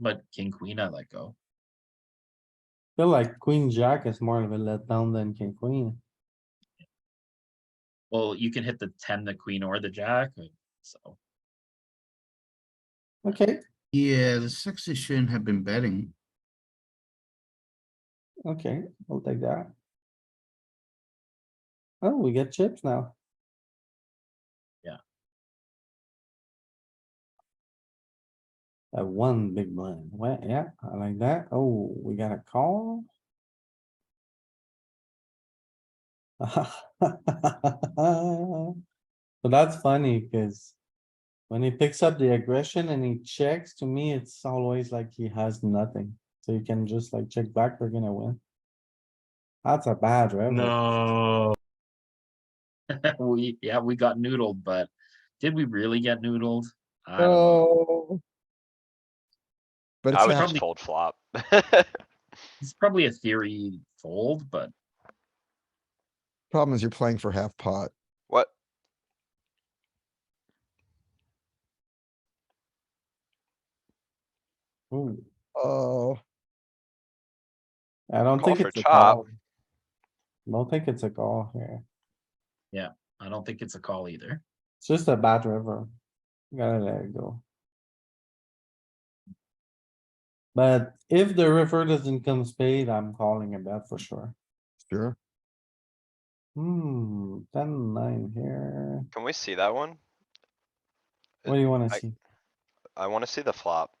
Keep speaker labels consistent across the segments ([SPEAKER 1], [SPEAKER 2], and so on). [SPEAKER 1] but king, queen, I let go.
[SPEAKER 2] Feel like queen jack is more of a letdown than king queen.
[SPEAKER 1] Well, you can hit the ten, the queen or the jack, and so.
[SPEAKER 2] Okay,
[SPEAKER 3] Yeah, the sixes shouldn't have been betting.
[SPEAKER 2] okay, I'll take that. Oh, we get chips now.
[SPEAKER 1] Yeah.
[SPEAKER 2] That one big blind. Well, yeah, I like that. Oh, we got a call. So that's funny, cuz when he picks up the aggression and he checks, to me, it's always like he has nothing. So you can just like check back, we're gonna win. That's a bad, right?
[SPEAKER 4] No.
[SPEAKER 1] We, yeah, we got noodled, but did we really get noodled? Um, I
[SPEAKER 5] Um,
[SPEAKER 1] don't
[SPEAKER 5] Uh,
[SPEAKER 1] know.
[SPEAKER 6] Oh. But
[SPEAKER 7] I
[SPEAKER 6] it's not,
[SPEAKER 7] was just
[SPEAKER 1] happening.
[SPEAKER 7] told flop.
[SPEAKER 1] It's probably a theory fold, but
[SPEAKER 6] problem is you're playing for half pot.
[SPEAKER 7] What?
[SPEAKER 2] Ooh,
[SPEAKER 6] Oh,
[SPEAKER 2] I don't
[SPEAKER 7] Call
[SPEAKER 2] think
[SPEAKER 7] for
[SPEAKER 2] it's a
[SPEAKER 7] chop.
[SPEAKER 2] call. Don't think it's a call here.
[SPEAKER 1] I don't think it's a call either.
[SPEAKER 2] It's just a bad river. Gotta let it go. But if the river doesn't come spade, I'm calling a bet for sure.
[SPEAKER 6] sure.
[SPEAKER 2] Hmm, ten, nine here.
[SPEAKER 7] Can we see that one?
[SPEAKER 2] What do you wanna
[SPEAKER 7] I-
[SPEAKER 2] see?
[SPEAKER 7] I wanna see the flop.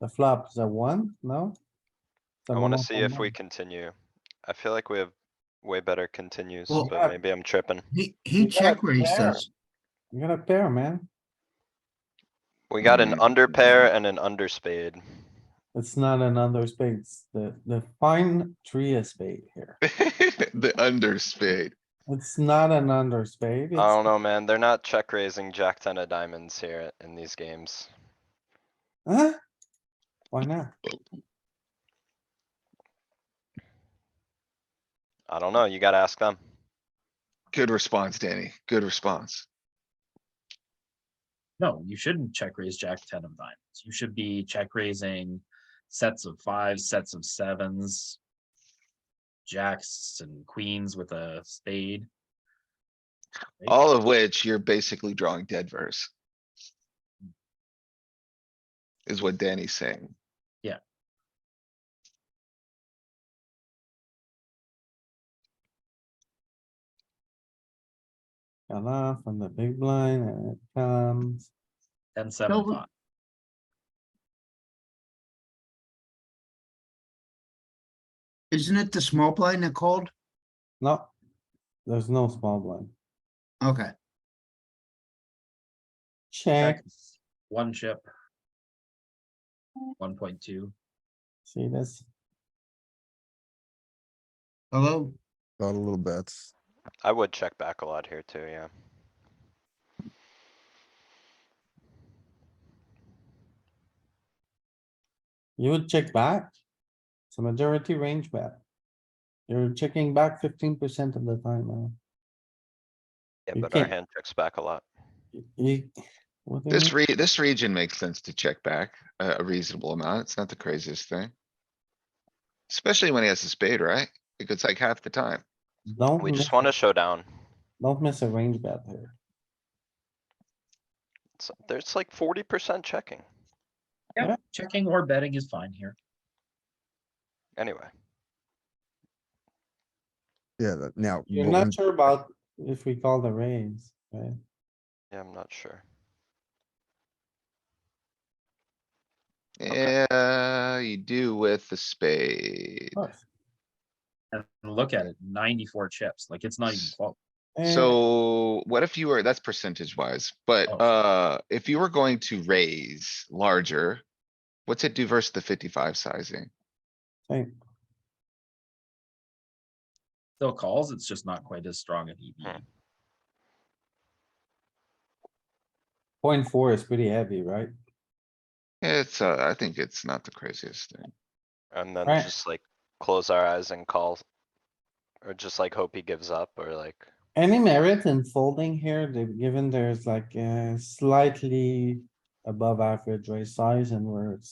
[SPEAKER 2] The flop is a one? No? It's a
[SPEAKER 7] I wanna
[SPEAKER 2] mono
[SPEAKER 7] see if
[SPEAKER 2] combo.
[SPEAKER 7] we continue. I feel like we have way better continues,
[SPEAKER 3] Well-
[SPEAKER 2] Yeah.
[SPEAKER 7] but maybe I'm tripping.
[SPEAKER 3] He,
[SPEAKER 2] You
[SPEAKER 3] he
[SPEAKER 2] got
[SPEAKER 3] checked where he
[SPEAKER 2] there.
[SPEAKER 3] says,
[SPEAKER 2] You got a pair, man.
[SPEAKER 7] We got an
[SPEAKER 3] Mm.
[SPEAKER 7] under pair and an under spade.
[SPEAKER 2] It's not another spades. The, the fine tree is spade here.
[SPEAKER 5] The underspade.
[SPEAKER 2] It's not an under spade.
[SPEAKER 7] I
[SPEAKER 2] it's-
[SPEAKER 7] don't know, man. They're not check raising jack ten of diamonds here in these games.
[SPEAKER 2] Huh? Why not?
[SPEAKER 7] I don't know. You gotta ask them.
[SPEAKER 5] Good response, Danny. Good response.
[SPEAKER 1] No, you shouldn't check raise jack ten of diamonds. You should be check raising sets of fives, sets of sevens. Jacks and queens with a spade. Right?
[SPEAKER 5] All of which you're basically drawing dead verse. Is what Danny's saying.
[SPEAKER 2] Got off on the big blind and it comes.
[SPEAKER 1] Ten, seven,
[SPEAKER 3] we-
[SPEAKER 1] five.
[SPEAKER 3] isn't it the small blind that called?
[SPEAKER 2] No. There's no small blind.
[SPEAKER 3] Okay,
[SPEAKER 2] Check.
[SPEAKER 1] Checks, One chip. One point two.
[SPEAKER 2] See this?
[SPEAKER 3] hello?
[SPEAKER 6] Got a little bets.
[SPEAKER 7] I would check back a lot here too, yeah.
[SPEAKER 2] You would check back. It's a majority range bet. You're checking back fifteen percent of the time, man.
[SPEAKER 7] Yeah,
[SPEAKER 2] You
[SPEAKER 7] but our
[SPEAKER 2] can't-
[SPEAKER 7] hand checks back a lot.
[SPEAKER 2] You- You. what do you
[SPEAKER 5] This
[SPEAKER 2] mean?
[SPEAKER 5] re, this region makes sense to check back a a reasonable amount. It's not the craziest thing. Especially when he has a spade, right? Because it's like half the time.
[SPEAKER 2] Don't,
[SPEAKER 7] We
[SPEAKER 2] miss-
[SPEAKER 7] just wanna show down.
[SPEAKER 2] don't miss a range bet here.
[SPEAKER 7] It's- There's like forty percent checking.
[SPEAKER 1] Yeah,
[SPEAKER 2] Yeah.
[SPEAKER 1] checking or betting is fine here.
[SPEAKER 7] Anyway,
[SPEAKER 6] Yeah, that- now.
[SPEAKER 2] You're
[SPEAKER 6] what
[SPEAKER 2] not
[SPEAKER 6] we-
[SPEAKER 2] sure about if we call the raise, right?
[SPEAKER 7] yeah, I'm not sure. Okay.
[SPEAKER 5] Yeah, you do with the spade.
[SPEAKER 2] Of course.
[SPEAKER 1] And look at it, ninety-four chips, like it's not even
[SPEAKER 5] S-
[SPEAKER 1] close.
[SPEAKER 2] Eh,
[SPEAKER 5] So what if you were, that's percentage wise, but
[SPEAKER 1] Oh.
[SPEAKER 5] uh, if you were going to raise larger, what's it do versus the fifty-five sizing?
[SPEAKER 2] hey,
[SPEAKER 1] Still calls, it's just not quite as strong an E EV.
[SPEAKER 7] Hmm.
[SPEAKER 2] Point four is pretty heavy, right?
[SPEAKER 5] It's, uh, I think it's not the craziest thing.
[SPEAKER 7] And then
[SPEAKER 2] Alright.
[SPEAKER 7] just like close our eyes and call. Or just like hope he gives up or like,
[SPEAKER 2] Any merit in folding here, they've eh, given there's like uh slightly above average raise size and we're